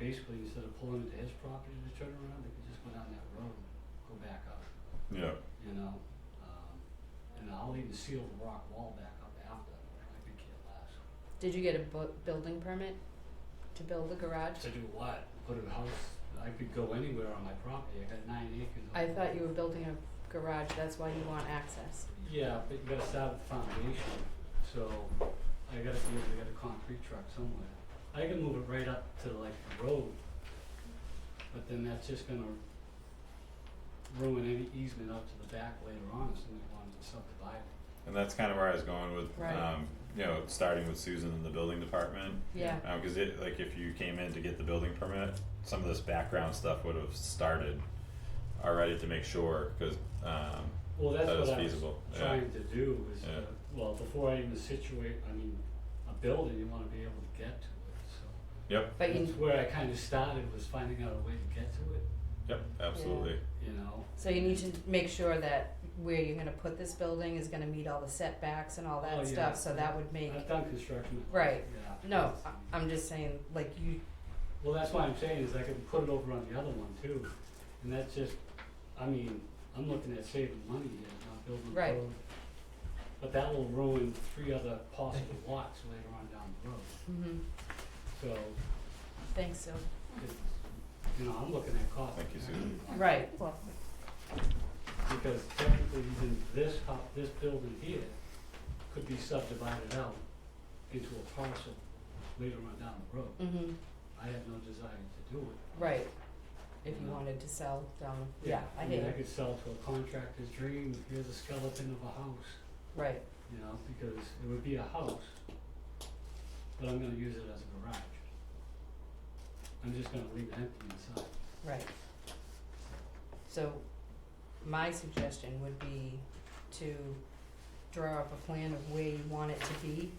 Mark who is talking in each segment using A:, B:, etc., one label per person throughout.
A: basically, instead of pulling into his property to turn around, they could just go down that road, go back up,
B: yeah,
A: you know? Um, and I'll even seal the rock wall back up after, I could care less.
C: Did you get a bu- building permit to build a garage?
A: To do what? Put a house, I could go anywhere on my property, I got nine acres. of-
C: I thought you were building a garage, that's why you want access.
A: Yeah, but you gotta start with the foundation, so I gotta be able to get a concrete truck somewhere. I can move it right up to like the road, but then that's just gonna ruin any easement up to the back later on if somebody wanted to subdivide it.
B: and that's kind of where I was going with,
C: Right.
B: um, you know, starting with Susan in the building department.
C: Yeah,
B: Um, cause it, like, if you came in to get the building permit, some of this background stuff would have started already to make sure, cause, um,
A: Well, that's
B: That is
A: what I was
B: feasible, yeah.
A: trying to do is,
B: Yeah.
A: uh, well, before I even situate, I mean, a building, you wanna be able to get to it, so.
B: yep,
C: but you,
A: That's where I kinda started was finding out a way to get to it,
B: yep, absolutely,
A: you know?
C: so you need to make sure that where you're gonna put this building is gonna meet all the setbacks and all
A: Oh,
C: that
A: yeah.
C: stuff, so that would make,
A: I've done construction.
C: Right.
A: Yeah.
C: no, I- I'm just saying, like you,
A: Well, that's why I'm saying is I could put it over on the other one too, and that's just, I mean, I'm looking at saving money here, not building a
C: Right.
A: road. But that will ruin three other possible lots later on down the road,
C: mhm,
A: so,
C: thanks, so,
A: it's, you know, I'm looking at cost.
B: Thank you, Susan.
C: right,
A: Because technically even this ho this building here could be subdivided out into a parcel later on down the road.
C: mhm,
A: I have no desire to do it.
C: right. If you
A: No.
C: wanted to sell down, yeah, I hear
A: mean, I
C: you,
A: could sell to a contractor's dream, here's a skeleton of a house,
C: right,
A: you know, because it would be a house, but I'm gonna use it as a garage. I'm just gonna leave it empty inside.
C: right. So, my suggestion would be to draw up a plan of where you want it to be.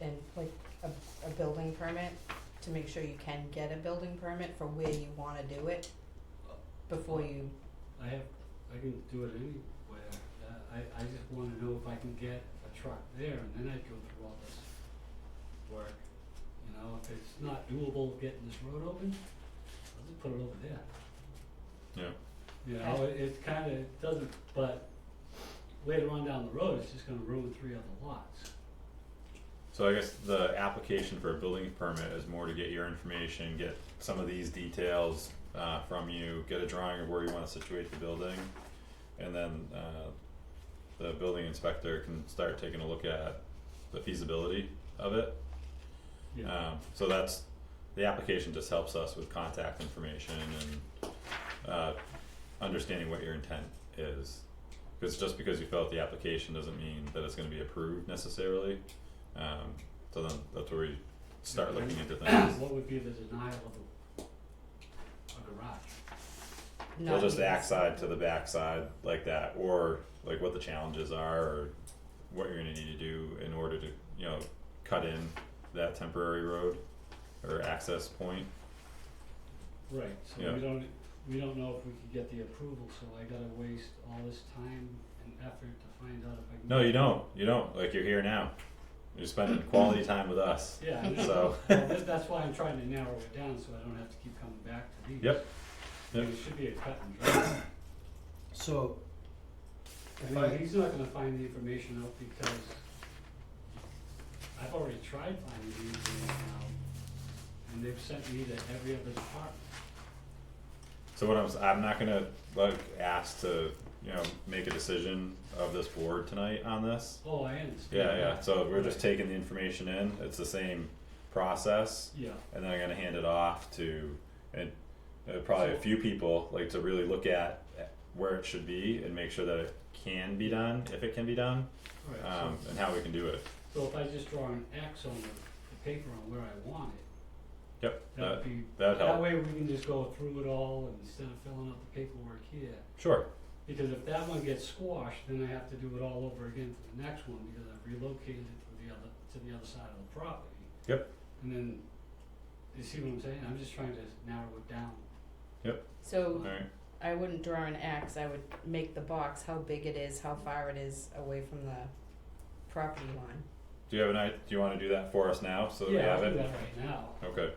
C: And like a, a building permit, to make sure you can get a building permit for where you wanna do it. Before you,
A: I have, I can do it anywhere, Uh, I, I just wanna know if I can get a truck there, and then I go through all this work. You know, if it's not doable getting this road open, I'll just put it over there.
B: yeah,
A: You know, it, it kinda doesn't, but later on down the road, it's just gonna ruin three other lots.
B: so I guess the application for a building permit is more to get your information, get some of these details, uh, from you, get a drawing of where you wanna situate the building. And then, uh, the building inspector can start taking a look at the feasibility of it.
A: Yeah.
B: Um, so that's, the application just helps us with contact information and, uh, understanding what your intent is. Cause just because you fill out the application doesn't mean that it's gonna be approved necessarily, um, so then that's where we start looking into things.
A: What would be the denial of a, a garage?
C: not.
B: Well, just the
C: use-
B: backside to the backside like that, or like what the challenges are, or what you're gonna need to do in order to, you know, cut in that temporary road or access point.
A: Right, so
B: Yeah.
A: we don't, we don't know if we could get the approval, so I gotta waste all this time and effort to find out if I can.
B: No, you don't. You don't. Like you're here now. You're spending quality time with us.
A: Yeah, I know.
B: So
A: Well, that- that's why I'm trying to narrow it down, so I don't have to keep coming back to these.
B: Yep.
A: I mean, It should be a cut and dry.
D: So, if
A: I mean,
D: I,
A: he's not gonna find the information out because I've already tried finding the information out, and they've sent me to every other department.
B: so what I'm s- I'm not gonna like ask to you know make a decision of this board tonight on this.
A: Oh, I understand.
B: Yeah, yeah. So we're just
A: Right.
B: taking the information in. It's the same process,
A: Yeah.
B: and then I'm gonna hand it off to and uh, probably a
A: So-
B: few people like to really look at uh, where it should be and make sure that it can be done if it can be done
A: Right, so-
B: um, and how we can do it.
A: So if I just draw an X on the, the paper on where I want it,
B: Yep. Uh,
A: that
B: That
A: would be,
B: that'd
A: that
B: help.
A: way we can just go through it all and instead of filling out the paperwork here.
B: Sure.
A: Because if that one gets squashed, then I have to do it all over again for the next one because I've relocated it to the other, to the other side of the property.
B: Yep.
A: And then, you see what I'm saying? I'm just trying to narrow it down.
B: All
C: So
B: right.
C: I wouldn't draw an axe, I would make the box, how big it is, how far it is away from the property line.
B: Do you have an idea? Do you want to do that for us now so that we have
A: I'll do
B: it?
A: that right now. Uh,
B: Okay.